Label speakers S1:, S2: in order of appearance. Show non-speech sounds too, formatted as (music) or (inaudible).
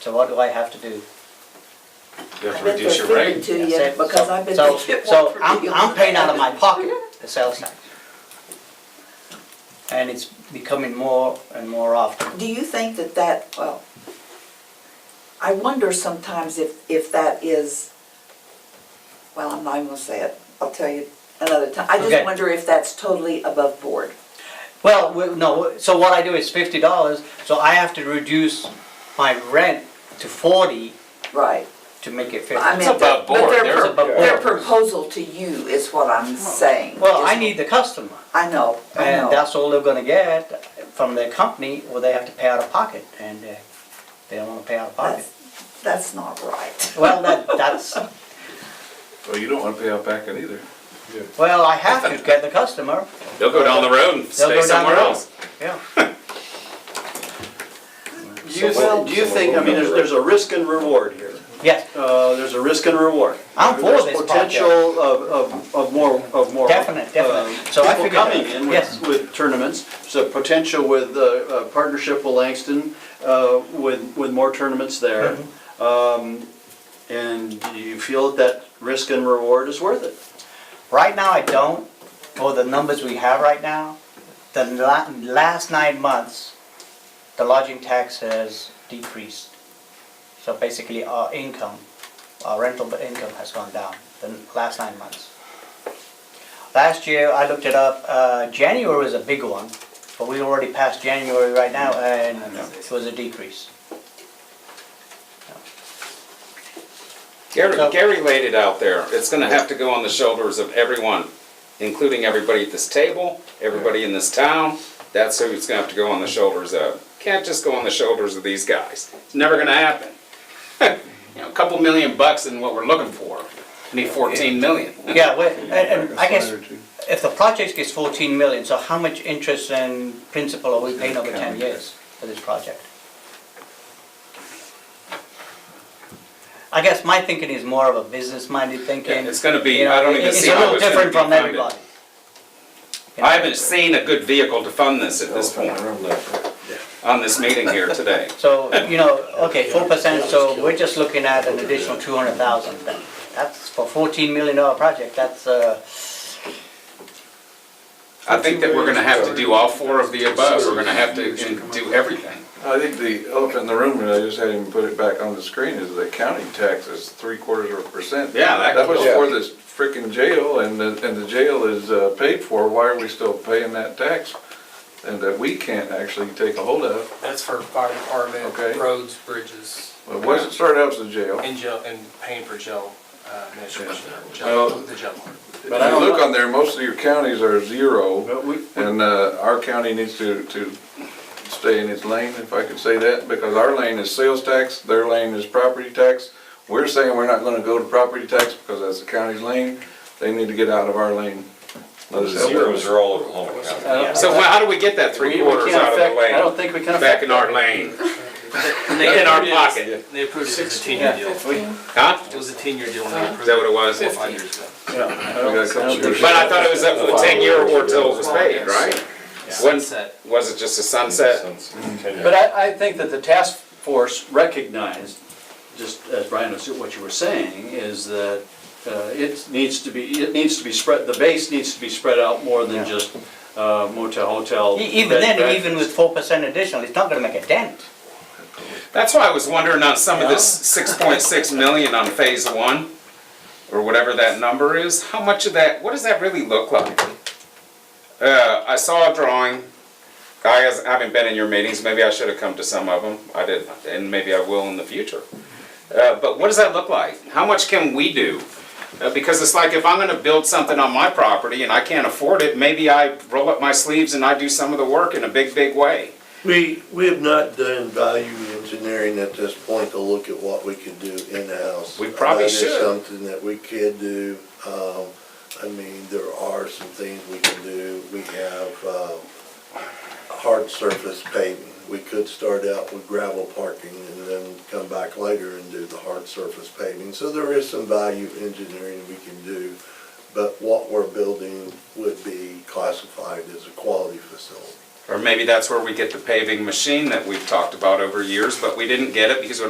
S1: So what do I have to do?
S2: You have
S3: I've
S2: to
S3: been
S2: reduce your
S3: fulfilling
S2: rate.
S3: To you,
S1: That's it.
S3: because
S1: So-
S3: I've been.
S1: So,
S3: making it
S1: so
S3: work for
S1: I'm,
S3: you.
S1: I'm paying out of my pocket, the sales tax. And it's becoming more and more often.
S3: Do you think that that, well, I wonder sometimes if, if that is, well, I'm not even gonna say it, I'll tell you another time. I
S1: Okay.
S3: just wonder if that's totally above board.
S1: Well, we- no, so what I do is fifty dollars, so I have to reduce my rent to forty
S3: Right.
S1: to make it
S3: I
S1: fifty.
S3: mean, but-
S2: above
S3: but
S2: board.
S3: their
S2: They're
S3: pro-
S1: above
S3: Their
S1: board.
S3: proposal to you is what I'm saying.
S1: Well, I
S3: is-
S1: need the customer,
S3: I know, I
S1: and
S3: know.
S1: that's all they're gonna get from their company, or they have to pay out of pocket, and uh, they don't wanna pay out of pocket.
S3: That's, that's not right.
S1: Well, that, that's,
S2: Well, you don't want to pay out back either.
S1: well, I have to get the customer,
S2: They'll go down the road and
S1: They'll
S2: stay
S1: go down
S2: somewhere
S1: the road.
S2: else.
S1: yeah.
S4: Do you,
S3: Well-
S4: think- do you think, I mean, there's, there's a risk and reward here.
S1: Yes,
S4: Uh, there's a risk and reward.
S1: I'm for
S4: There's
S1: this
S4: Potential of, of, of more, of more.
S1: Definite, definite.
S4: um,
S1: So I
S4: People
S1: figured that-
S4: coming in
S1: yes.
S4: with, with tournaments, so potential with, uh, uh, partnership with Langston, uh, with, with more tournaments there.
S1: Mm-hmm.
S4: Um, and do you feel that risk and reward is worth it?
S1: Right now, I don't, or the numbers we have right now, the la- last nine months, the lodging tax has decreased. So basically, our income, our rental income has gone down the last nine months. Last year, I looked it up, uh, January was a big one, but we already passed January right now, and it was a decrease.
S2: Gary,
S1: So-
S2: Gary laid it out there. It's gonna have to go on the shoulders of everyone, including everybody at this table, everybody in this town. That's who it's gonna have to go on the shoulders of. Can't just go on the shoulders of these guys. It's never gonna happen. (laughs) You know, a couple million bucks in what we're looking for. Need fourteen million.
S1: Yeah, well, and, and I guess, if the project gets fourteen million, so how much interest and principal are we paying over ten years for this project? I guess my thinking is more of a business-minded thinking.
S2: Yeah, it's gonna be-
S1: you know,
S2: I don't
S1: it-
S2: even
S1: it's
S2: see
S1: a
S2: how
S1: little
S2: it's gonna
S1: different
S2: be
S1: from
S2: funded.
S1: everybody. You know?
S2: I haven't seen a good vehicle to fund this at this point, on this meeting here today.
S1: So, you know, okay, four percent, so we're just looking at an additional two hundred thousand. That's for fourteen million dollar project, that's, uh,
S2: I think that we're gonna have to do all four of the above. We're gonna have to do everything.
S5: I think the elephant in the room, and I just had him put it back on the screen, is the county tax is three quarters of a percent.
S2: Yeah, that
S5: That was
S2: could-
S5: for this frickin' jail, and the, and the jail is uh, paid for, why are we still paying that tax? And that we can't actually take a hold of,
S6: That's for fire
S5: Okay.
S6: department, roads, bridges,
S5: Well, it wasn't started out as a jail.
S6: and jail, and paying for jail uh, administration, or
S5: Well-
S6: jail- the jail (laughs) part.
S5: If you look on there, most of your counties are zero,
S4: But we,
S5: and uh, our county needs to, to stay in its lane, if I could say that, because our lane is sales tax, their lane is property tax. We're saying we're not gonna go to property tax because that's the county's lane, they need to get out of our lane. Let us help them.
S7: Zeros are all over Oklahoma County.
S4: I
S2: So well, how do we get
S4: don't,
S2: that
S4: we-
S2: three
S4: we
S2: quarters
S4: can't
S2: out of the
S4: affect, I don't
S2: lane?
S4: think we can affect.
S2: Back in our lane, in our pocket,
S6: They approved it as a ten-year deal.
S2: huh?
S6: It was a ten-year deal when they approved it.
S2: Is that what it was?
S6: Four, five years ago.
S4: Yeah, I
S5: We
S4: don't-
S5: got a couple
S4: I don't think-
S5: years.
S2: But I thought it was up for ten year or till it was paid, right? Wasn't-
S6: Sunset.
S2: Was it just a sunset?
S4: But I, I think that the task force recognized, just as Brian was, what you were saying, is that uh, it needs to be, it needs to be spread, the base needs to be spread out more
S1: Yeah.
S4: than just uh, motel, hotel.
S1: e- even
S4: bed,
S1: then,
S4: breakfast.
S1: even with four percent additional, it's not gonna make a dent.
S2: That's why I was wondering on some of this six point six million on phase one, or whatever that number is, how much of that, what does that really look like? Uh, I saw a drawing, I has- haven't been in your meetings, maybe I should have come to some of them, I did, and maybe I will in the future. Uh, but what does that look like? How much can we do? Uh, because it's like if I'm gonna build something on my property and I can't afford it, maybe I roll up my sleeves and I do some of the work in a big, big way.
S8: We, we have not done value engineering at this point to look at what we could do in-house.
S2: We probably
S8: Uh, there's
S2: should.
S8: Something that we could do, um, I mean, there are some things we can do, we have, um, hard surface paving. We could start out with gravel parking and then come back later and do the hard surface paving. So there is some value engineering we can do, but what we're building would be classified as a quality facility.
S2: Or maybe that's where we get the paving machine that we've talked about over years, but we didn't get it because we're